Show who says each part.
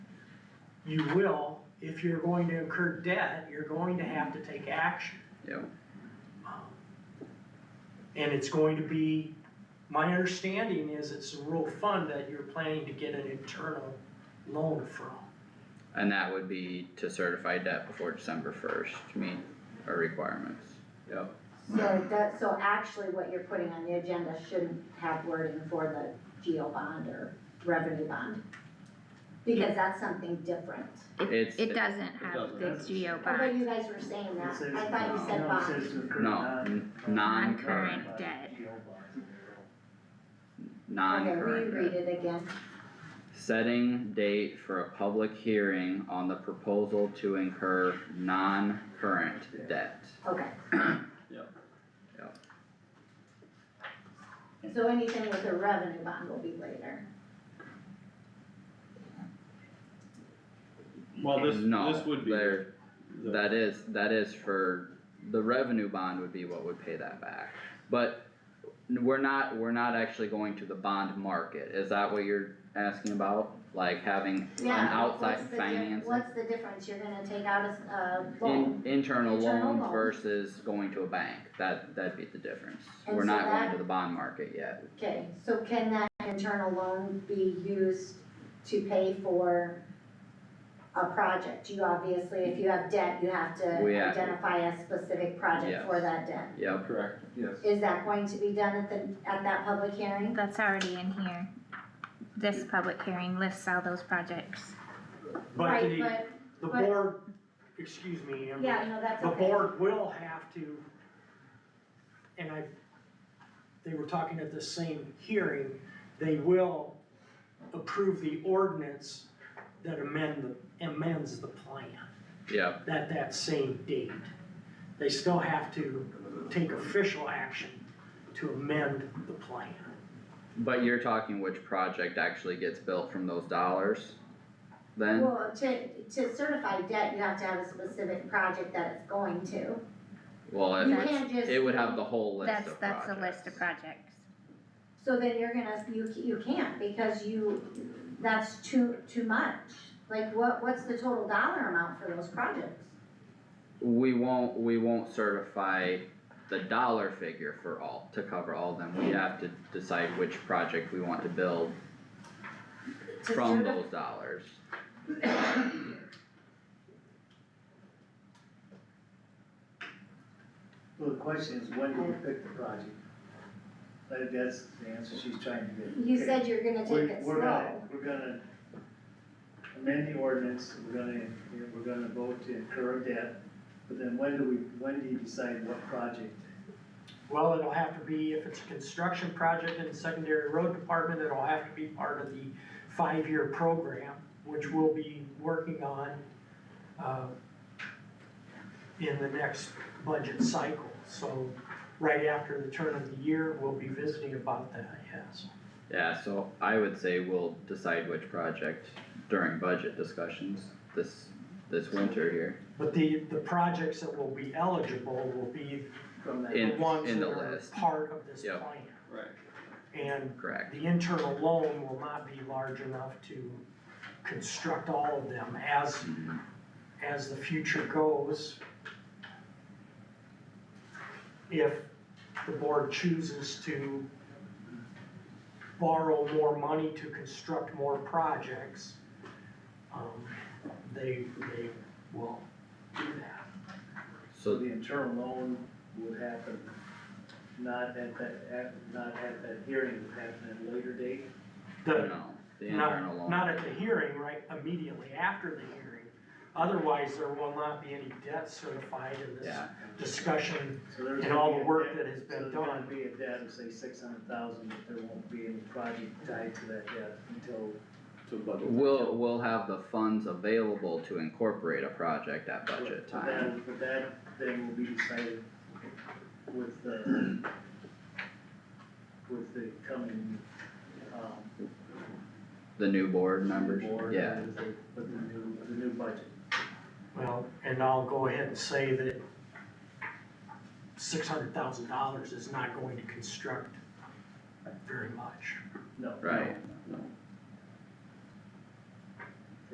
Speaker 1: you will, if you're going to incur debt, you're going to have to take action. Um,
Speaker 2: Yep.
Speaker 1: And it's going to be, my understanding is it's a rural fund that you're planning to get an internal loan from.
Speaker 2: And that would be to certify debt before December first to meet our requirements. Yep.
Speaker 3: So that, so actually what you're putting on the agenda shouldn't have wording for the geo bond or revenue bond. Because that's something different.
Speaker 2: It's,
Speaker 4: It doesn't
Speaker 5: doesn't
Speaker 4: have the
Speaker 5: have to.
Speaker 4: geo
Speaker 3: I thought
Speaker 4: bond,
Speaker 3: you guys were saying
Speaker 6: It
Speaker 3: that.
Speaker 6: says-
Speaker 3: I thought you said
Speaker 6: no, it
Speaker 3: bond.
Speaker 6: says uh, to occur
Speaker 2: no,
Speaker 6: not-
Speaker 2: n- non-current,
Speaker 4: Non-current debt.
Speaker 3: Okay,
Speaker 2: non-current debt.
Speaker 3: reread it again.
Speaker 2: Setting date for a public hearing on the proposal to incur non-current debt.
Speaker 3: Okay.
Speaker 5: Yep.
Speaker 2: Yep.
Speaker 3: So anything with a revenue bond will be later.
Speaker 5: Well, this,
Speaker 2: No,
Speaker 5: this would be.
Speaker 2: there-
Speaker 5: the-
Speaker 2: That is, that is for, the revenue bond would be what would pay that back. But we're not, we're not actually going to the bond market, is that what you're asking about? Like having an
Speaker 3: Yeah,
Speaker 2: outside
Speaker 3: what's the di-
Speaker 2: financing?
Speaker 3: What's the difference? You're gonna take out a, a loan.
Speaker 2: In, internal
Speaker 3: Internal
Speaker 2: loans
Speaker 3: loan.
Speaker 2: versus going to a bank, that, that'd be the difference.
Speaker 3: And
Speaker 2: We're
Speaker 3: so
Speaker 2: not going
Speaker 3: that-
Speaker 2: to the bond market yet.
Speaker 3: Okay, so can that internal loan be used to pay for a project? You obviously, if you have debt, you have to
Speaker 2: We have-
Speaker 3: identify a specific project for
Speaker 2: Yes.
Speaker 3: that debt.
Speaker 2: Yep,
Speaker 5: Correct, yes.
Speaker 3: Is that going to be done at the, at that public hearing?
Speaker 4: that's already in here. This public hearing lists all those projects.
Speaker 1: But
Speaker 3: Right,
Speaker 1: the,
Speaker 3: but,
Speaker 1: the
Speaker 3: but-
Speaker 1: board, excuse me, Amber.
Speaker 3: yeah, no, that's
Speaker 1: The
Speaker 3: okay.
Speaker 1: board will have to, and I, they were talking at the same hearing, they will approve the ordinance that amend, the amends the plan
Speaker 2: yep,
Speaker 1: at that same date. They still have to take official action to amend the plan.
Speaker 2: but you're talking which project actually gets built from those dollars then?
Speaker 3: Well, to, to certify debt, you have to have a specific project that it's going to.
Speaker 2: Well,
Speaker 3: You
Speaker 2: if
Speaker 3: can't
Speaker 2: it's,
Speaker 3: just.
Speaker 2: it would have the whole list
Speaker 4: That's,
Speaker 2: of
Speaker 4: that's
Speaker 2: projects.
Speaker 4: a list of projects.
Speaker 3: So then you're gonna, you, you can't, because you, that's too, too much. Like, what, what's the total dollar amount for those projects?
Speaker 2: We won't, we won't certify the dollar figure for all, to cover all of them, we have to decide which project we want to build
Speaker 3: To
Speaker 2: from
Speaker 3: certi-
Speaker 2: those dollars.
Speaker 6: Well, the question is, when do you pick the project? Like, that's the answer she's trying to get.
Speaker 3: You said you're gonna
Speaker 6: We're,
Speaker 3: take it
Speaker 6: we're gonna,
Speaker 3: slow.
Speaker 6: we're gonna amend the ordinance, we're gonna, we're gonna vote to incur debt, but then when do we, when do you decide what project?
Speaker 1: Well, it'll have to be, if it's a construction project in the secondary road department, it'll have to be part of the five-year program, which we'll be working on, uh, in the next budget cycle. So right after the turn of the year, we'll be visiting about that, yes.
Speaker 2: Yeah, so I would say we'll decide which project during budget discussions this, this winter here,
Speaker 1: But the, the projects that will be eligible will be
Speaker 6: From that,
Speaker 1: the
Speaker 2: In-
Speaker 1: ones
Speaker 2: in
Speaker 1: that
Speaker 2: the
Speaker 1: are
Speaker 2: list.
Speaker 1: part of this plan.
Speaker 2: Yep.
Speaker 5: Right.
Speaker 1: And
Speaker 2: correct?
Speaker 1: The internal loan will not be large enough to construct all of them as, as the future goes. If the board chooses to borrow more money to construct more projects, um, they, they will do that.
Speaker 6: so
Speaker 2: So,
Speaker 6: the internal loan would happen, not at that, at, not at that hearing, it would happen at a later date?
Speaker 1: The-
Speaker 2: no, the
Speaker 1: Not-
Speaker 2: internal loan.
Speaker 1: Not at the hearing, right, immediately after the hearing, otherwise there will not be any debt certified in this
Speaker 2: Yeah,
Speaker 1: discussion
Speaker 6: So there's
Speaker 1: And
Speaker 6: gonna
Speaker 1: all
Speaker 6: be
Speaker 1: the
Speaker 6: a
Speaker 1: work
Speaker 6: debt-
Speaker 1: that has been
Speaker 6: So there's
Speaker 1: done.
Speaker 6: gonna be a debt of say six hundred thousand, but there won't be any project tied to that debt until,
Speaker 5: To budget.
Speaker 2: we'll, we'll have the funds available to incorporate a project at budget
Speaker 6: but
Speaker 2: time.
Speaker 6: that, but that thing will be decided with the, with the coming, um,
Speaker 2: The new board members,
Speaker 6: board.
Speaker 2: yeah,
Speaker 6: With the, with the new, the new budget.
Speaker 1: Well, and I'll go ahead and say that six hundred thousand dollars is not going to construct very much.
Speaker 6: No.
Speaker 2: right,